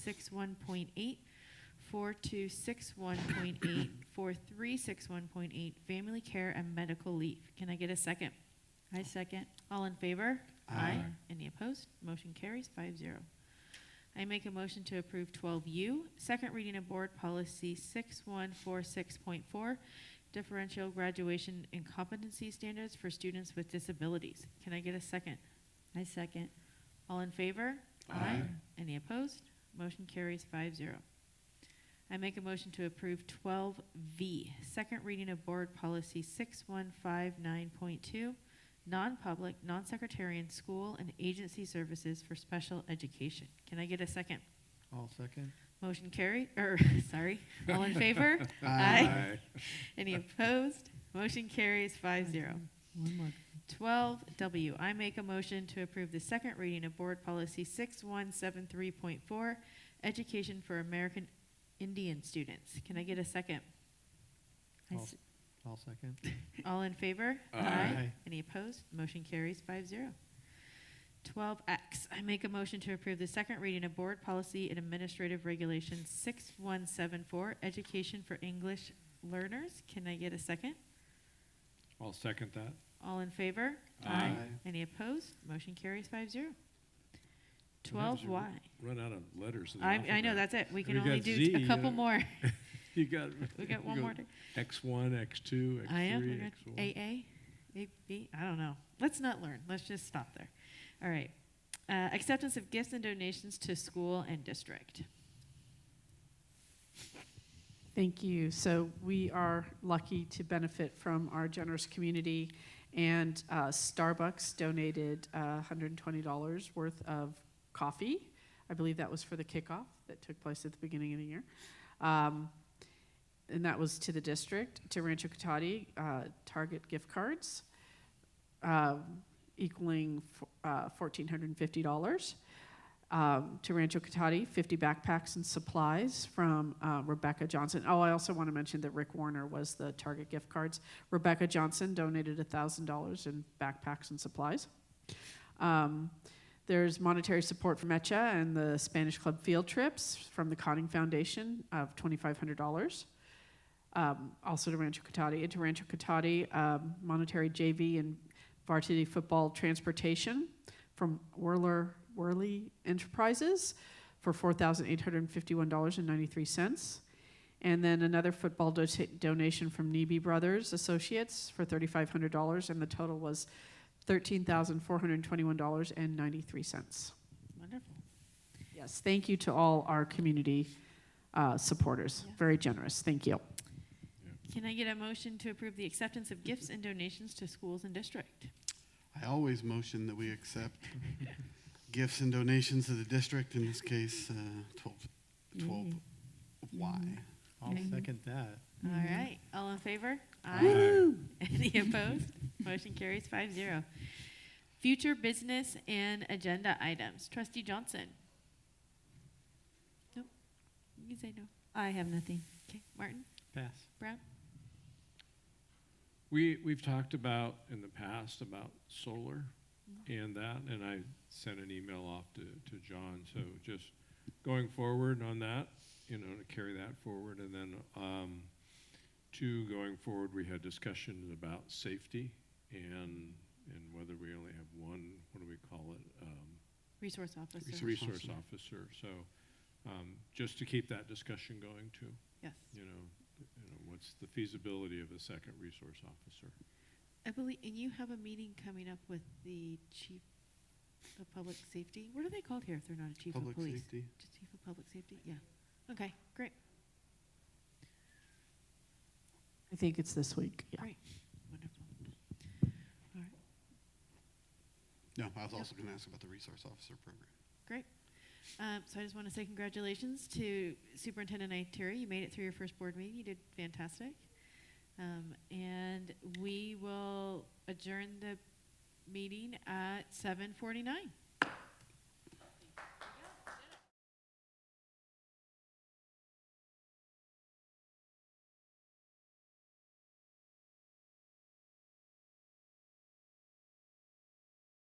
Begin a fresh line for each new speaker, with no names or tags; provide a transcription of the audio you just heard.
61.8, 4261.8, 4361.8, family care and medical leave. Can I get a second?
I second.
All in favor?
Aye.
Any opposed? Motion carries five zero. I make a motion to approve twelve U, second reading of board policy six one four six point four, differential graduation and competency standards for students with disabilities. Can I get a second?
I second.
All in favor?
Aye. Aye.
Any opposed? Motion carries five zero. I make a motion to approve twelve V, second reading of board policy six one five nine point two, non-public, non-secretarian school and agency services for special education. Can I get a second?
All second.
Motion carried, or, sorry, all in favor?
Aye.
Any opposed? Motion carries five zero.
One more.
12W, I make a motion to approve the second reading of Board Policy 6173.4, Education for American Indian Students. Can I get a second?
I
I'll
s-
All second.
All in favor?
Aye.
Any opposed? Motion carries 5-0. 12X, I make a motion to approve the second reading of Board Policy and Administrative Regulation 6174, Education for English Learners. Can I get a second?
I'll second that.
All in favor?
Aye. Aye.
Any opposed? Motion carries five zero.
What happens
Twelve
if you
Y.
Run out of letters. in the
I, I know,
alphabet?
that's it. We
If
can
you
only
got
do
Z,
a
you
couple
gotta-
more.
You got.
We got one
you
more. to-
X one, X two, X
I am.
three,
We got
X one.
AA, AB, I don't know. Let's not learn. Let's just stop there. All right. Uh, acceptance of gifts and donations to school and district.
Thank you. So we are lucky to benefit from our generous community, and uh, Starbucks donated uh, $120 worth of coffee. I believe that was for the kickoff that took place at the beginning of the year. Um, and that was to the district, to Rancho Cotati, uh, Target gift cards, um, equaling f- uh, $1,450 um, to Rancho Cotati, 50 backpacks and supplies from uh, Rebecca Johnson. Oh, I also want to mention that Rick Warner was the Target gift cards. Rebecca Johnson donated $1,000 in backpacks and supplies. Um, there's monetary support from ECHA and the Spanish Club field trips from the Conning Foundation of $2,500. Um, also to Rancho Cotati. And to Rancho Cotati, um, monetary JV and varsity football transportation from Whirler Whirly Enterprises for four thousand eight hundred fifty-one dollars and ninety-three cents, and then another football do- donation from Neby Brothers Associates for thirty-five hundred dollars, and the total was thirteen thousand four hundred twenty-one dollars and ninety-three cents.
Wonderful.
Yes, thank you to all our community uh, supporters.
Yeah.
Very generous. Thank you.
Can I get a motion to approve the acceptance of gifts and donations to schools and district?
I always motion that we accept gifts and donations to the district, in this case, uh, 12, 12 Y.
I'll second that.
All
Mhm.
right. All in favor?
Woo!
Any opposed? Motion carries five zero. Future business and agenda items. Trustee Johnson? Nope. You can say no.
I have nothing.
Okay, Martin?
Pass.
Brown?
We, we've talked about in the past about solar and that, and I sent an email off to, to John, so just going forward on that, you know, to carry that forward, and then, um, two, going forward, we had discussions about safety and, and whether we only have one, what do we call it? Um,
Resource officer.
Resource
Resource
officer.
officer, so, um, just to keep that discussion going too,
Yes.
you know, you know, what's the feasibility of a second resource officer?
I believe, and you have a meeting coming up with the chief of public safety. What are they called here if they're not a chief of
Public
police?
safety.
Just Chief of public safety? Yeah. Okay, great.
I think it's this week. Yeah.
Wonderful.
No, I was also going to ask about the resource officer program.
Um, so I just want to say congratulations to Superintendent Iteri. You made it through your first board meeting. You did fantastic. Um, and we will adjourn the meeting at 7:49.